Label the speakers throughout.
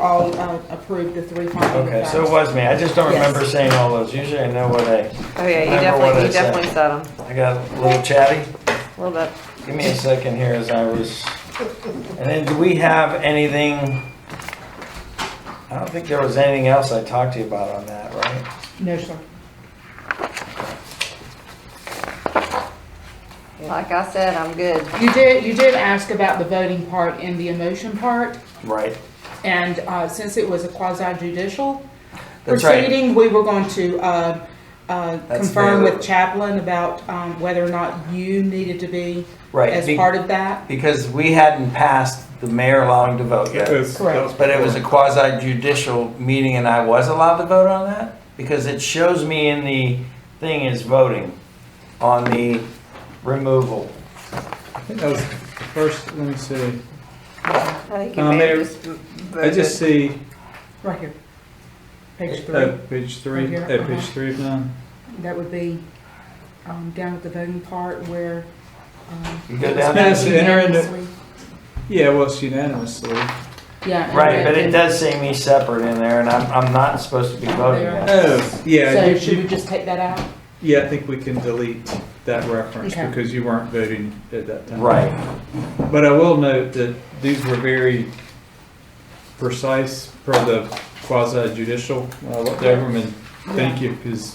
Speaker 1: all um, approved the three findings. of
Speaker 2: Okay, so it
Speaker 1: facts.
Speaker 2: was me. I just don't
Speaker 1: Yes.
Speaker 2: remember saying all those. Usually I know what I,
Speaker 3: Oh yeah, you
Speaker 2: Remember what
Speaker 3: definitely,
Speaker 2: I
Speaker 3: you
Speaker 2: said.
Speaker 3: definitely said them.
Speaker 2: I got a little chatty.
Speaker 3: Well, that,
Speaker 2: Give me a second here as I was, and then do we have anything? I don't think there was anything else I talked to you about on that, right?
Speaker 1: No, sir.
Speaker 3: like I said, I'm good.
Speaker 1: You did, you did ask about the voting part and the emotion part,
Speaker 2: Right.
Speaker 1: and uh, since it was a quasi judicial
Speaker 2: That's right.
Speaker 1: proceeding, we were going to uh, uh,
Speaker 2: That's
Speaker 1: confirm
Speaker 2: fair.
Speaker 1: with Chaplin about um, whether or not you needed to be
Speaker 2: Right,
Speaker 1: as
Speaker 2: be-
Speaker 1: part of that.
Speaker 2: Because we hadn't passed the mayor allowing to vote yet.
Speaker 4: Yes,
Speaker 1: Correct.
Speaker 4: that was
Speaker 2: But it was a
Speaker 4: before.
Speaker 2: quasi judicial meeting and I was allowed to vote on that? Because it shows me in the thing is voting on the removal.
Speaker 4: I think that was first, let me see.
Speaker 3: I think you
Speaker 4: Um,
Speaker 3: may
Speaker 4: there-
Speaker 3: have just
Speaker 4: I just
Speaker 3: voted.
Speaker 4: see,
Speaker 1: Right here. Page three,
Speaker 2: uh,
Speaker 4: at page three,
Speaker 1: Right
Speaker 4: at
Speaker 1: here,
Speaker 4: page
Speaker 1: uh-huh.
Speaker 4: three of nine.
Speaker 1: that would be um, down at the voting part where. um,
Speaker 2: You go down
Speaker 4: Yes,
Speaker 2: to-
Speaker 4: enter into-
Speaker 1: unanimously-
Speaker 4: Yeah, well, it's unanimously.
Speaker 1: Yeah. and
Speaker 2: Right, but it
Speaker 1: then-
Speaker 2: does say me separate in there and I'm, I'm not supposed to be voting on it.
Speaker 4: Oh, yeah,
Speaker 1: So
Speaker 4: you-
Speaker 1: should we
Speaker 4: you-
Speaker 1: just take that out?
Speaker 4: yeah, I think we can delete that reference
Speaker 1: Okay.
Speaker 4: because you weren't voting at that time.
Speaker 2: Right,
Speaker 4: But I will note that these were very precise per the uh, quasi judicial. I looked over them and thank you because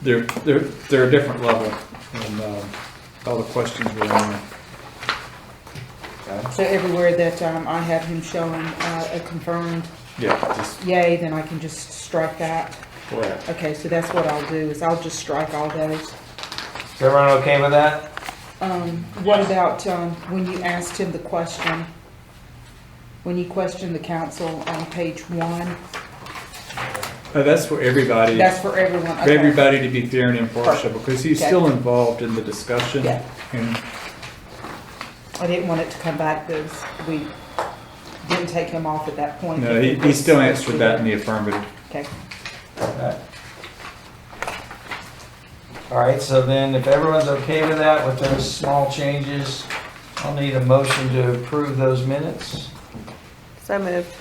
Speaker 4: they're, they're, they're a different level and, um, all the questions were in there.
Speaker 1: So everywhere that um, I have him showing uh, a confirmed
Speaker 4: Yeah, just
Speaker 1: yay, then I can just strike that.
Speaker 4: correct.
Speaker 1: Okay, so that's what I'll do, is I'll just strike all those.
Speaker 2: is everyone okay with that?
Speaker 1: Um, What about um, when you asked him the question? When you questioned the council on page one?
Speaker 4: Oh, that's for everybody.
Speaker 1: That's for everyone,
Speaker 4: for
Speaker 1: okay.
Speaker 4: everybody to be fair and impartial, because he's
Speaker 1: Okay.
Speaker 4: still involved in the discussion.
Speaker 1: Yeah.
Speaker 4: And
Speaker 1: I didn't want it to come back because we didn't take him off at that point.
Speaker 4: No, he, he still answered that in the affirmative.
Speaker 1: Okay.
Speaker 2: All right, so then if everyone's okay with that, with those small changes, I'll need a motion to approve those minutes.
Speaker 3: So moved.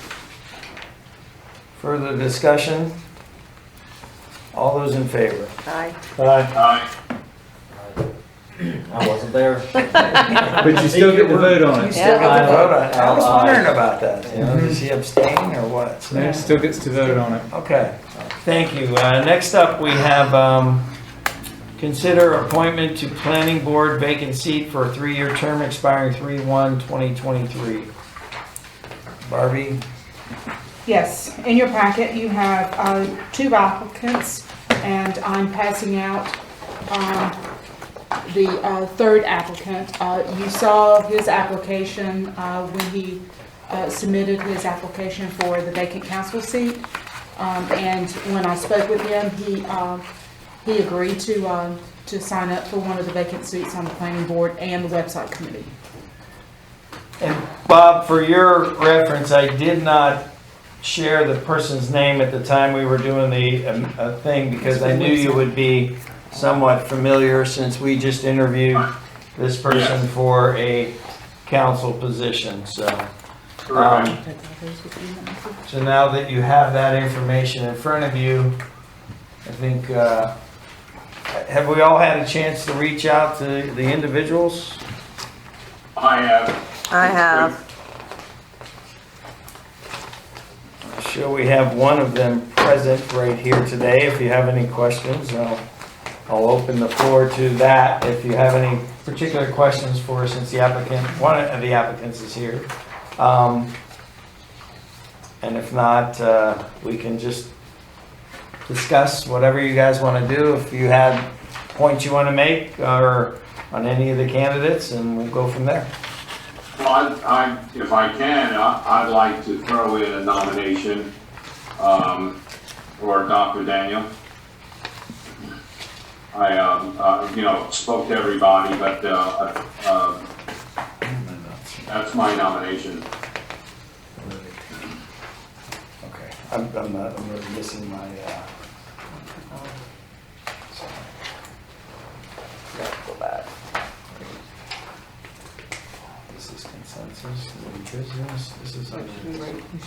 Speaker 2: Further discussion? All those in favor?
Speaker 3: Aye.
Speaker 5: I wasn't there.
Speaker 4: But you still get to vote on it.
Speaker 3: Yeah.
Speaker 2: I vote on- I was wondering about that, you know, does he abstain or what? So-
Speaker 4: No, still gets to vote on it.
Speaker 2: Okay, thank you. Uh, Next up, we have, um, consider appointment to planning board vacant seat for a three-year term expiring 3/1/2023. Barbie?
Speaker 1: Yes, in your packet, you have uh, two applicants, and I'm passing out um, the uh, third applicant. Uh, You saw his application uh, when he uh, submitted his application for the vacant council seat, Um, and when I spoke with him, he, um, he agreed to, um, to sign up for one of the vacant seats on the planning board and the website committee.
Speaker 2: And Bob, for your reference, I did not share the person's name at the time we were doing the um, uh, thing because I knew you would be somewhat familiar since we just interviewed this person for a council position, so. um,
Speaker 1: Take all those with you, Nancy.
Speaker 2: So now that you have that information in front of you, I think, uh, have we all had a chance to reach out to the individuals?
Speaker 6: I have.
Speaker 3: I have.
Speaker 2: Sure, we have one of them present right here today. If you have any questions, I'll, I'll open the floor to that. If you have any particular questions for, us, since the applicant, one of the applicants is here. Um, And if not, uh, we can just discuss whatever you guys want to do. If you had points you want to make uh, or on any of the candidates, and we'll go from there.
Speaker 6: Well, I, I, if I can, I, I'd like to throw in a nomination, um, for Dr. Daniel. I, um, uh, you know, spoke to everybody, but, uh, uh, that's my nomination.
Speaker 2: Okay, I'm, I'm, uh, I'm really missing my, uh. sorry. Gotta go back. This is consensus, new business, this is.